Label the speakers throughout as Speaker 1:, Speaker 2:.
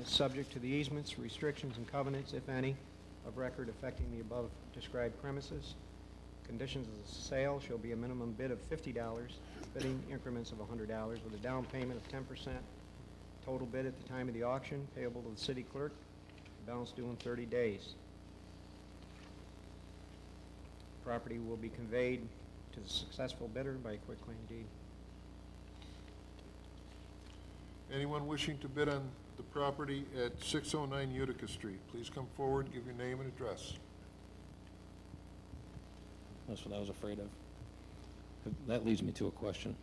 Speaker 1: is subject to the easements, restrictions, and covenants, if any, of record affecting the above described premises. Conditions of the sale shall be a minimum bid of fifty dollars, bidding increments of hundred dollars with a down payment of ten percent. Total bid at the time of the auction payable to the city clerk, balance due in thirty days. Property will be conveyed to the successful bidder by a quitclaim deed.
Speaker 2: Anyone wishing to bid on the property at 609 Utica Street, please come forward, give your name and address.
Speaker 3: That's what I was afraid of. That leads me to a question.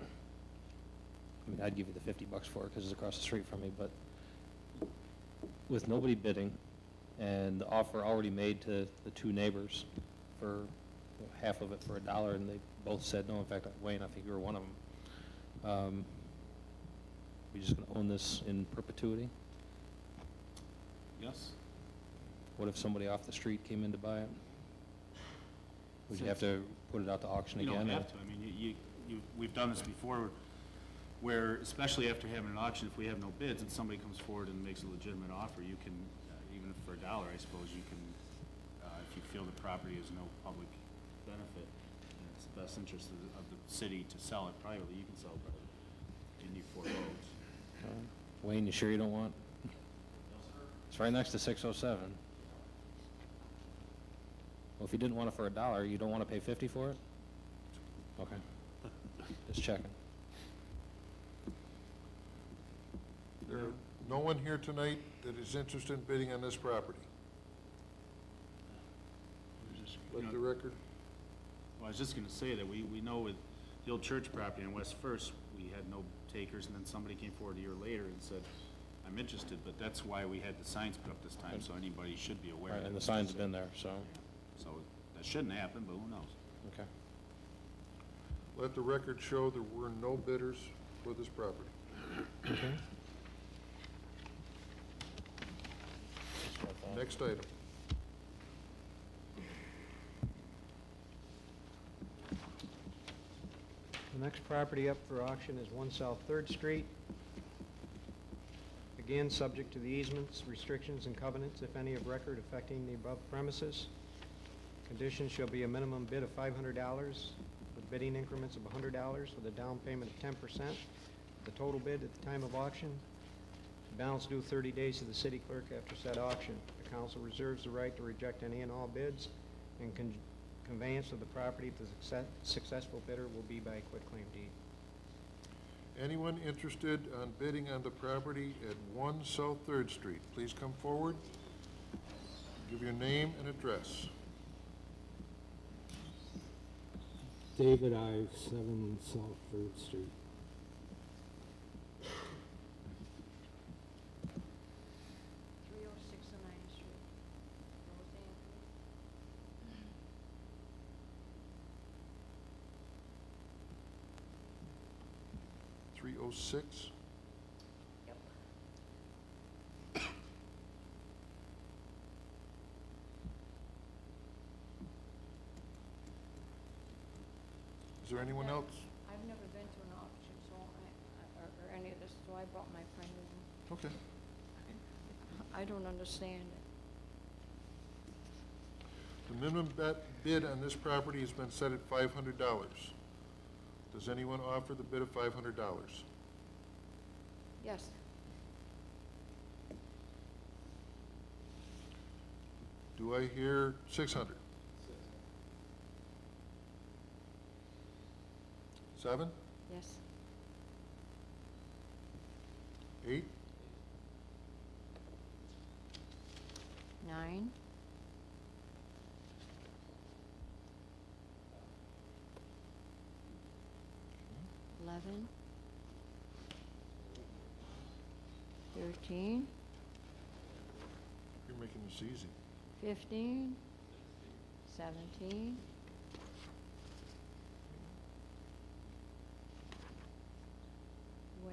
Speaker 3: I mean, I'd give you the 50 bucks for it because it's across the street from me, but with nobody bidding and the offer already made to the two neighbors for half of it for a dollar and they both said no, in fact, Wayne, I think you were one of them. Um, We just going to own this in perpetuity?
Speaker 4: Yes?
Speaker 3: What if somebody off the street came in to buy it? Would you have to put it out to auction
Speaker 4: You
Speaker 3: again?
Speaker 4: don't
Speaker 3: or-
Speaker 4: have to, I mean, you- you, you, we've done this before, where, especially after having an auction, if we have no bids, and somebody comes forward and makes a legitimate offer, you can, uh, even for a dollar, I suppose, you can, uh, if you feel the property is no public benefit, and it's the best interest of the, of the city to sell it privately, you can sell it privately, and you foreclose.
Speaker 3: Wayne, you sure you don't want? It's right next to 607. Well, if you didn't want it for a dollar, you don't want to pay 50 for it? Okay. Just checking.
Speaker 2: There are no one here tonight that is interested in bidding on this property. Let the record,
Speaker 4: Well, I was just gonna say that we, we know with the old church property on West First, we had no takers, and then somebody came forward a year later and said, I'm interested, but that's why we had the signs put up this time, so anybody should be aware.
Speaker 3: Right,
Speaker 4: that
Speaker 3: And the
Speaker 4: it's
Speaker 3: sign's
Speaker 4: just-
Speaker 3: been there, so,
Speaker 4: So, that shouldn't happen, but who knows?
Speaker 3: okay.
Speaker 2: let the record show there were no bidders for this property. Next item.
Speaker 1: The next property up for auction is one South Third Street. Again, subject to the easements, restrictions, and covenants, if any, of record affecting the above premises. Conditions shall be a minimum bid of five hundred dollars, with bidding increments of hundred dollars, with a down payment of ten percent, the total bid at the time of auction. Balance due thirty days to the city clerk after said auction. The council reserves the right to reject any and all bids and con- Conveyance of the property to the success- successful bidder will be by quitclaim deed.
Speaker 2: Anyone interested on bidding on the property at 1 South Third Street, please come forward, give your name and address.
Speaker 5: David Ives, 7 South Third Street.
Speaker 6: three oh six and nine Street, Rose Anthony.
Speaker 2: Three oh six?
Speaker 6: Yep.
Speaker 2: Is there anyone
Speaker 6: Yeah.
Speaker 2: else?
Speaker 6: I've never been to an auction, so I, I- or, or any of this, so I brought my friend in.
Speaker 2: Okay.
Speaker 6: I don't understand it.
Speaker 2: The minimum bet, bid on this property has been set at five hundred dollars. Does anyone offer the bid of five hundred dollars?
Speaker 6: Yes,
Speaker 2: Do I hear six hundred? Seven?
Speaker 6: yes.
Speaker 2: Eight?
Speaker 6: Nine? Eleven? Thirteen?
Speaker 2: You're making this easy.
Speaker 6: 15, 17,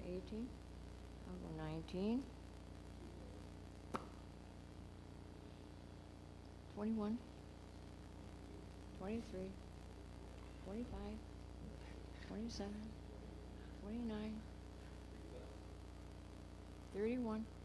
Speaker 6: 18, I'll go 19, 21, 23, 25, 27, 29, 31,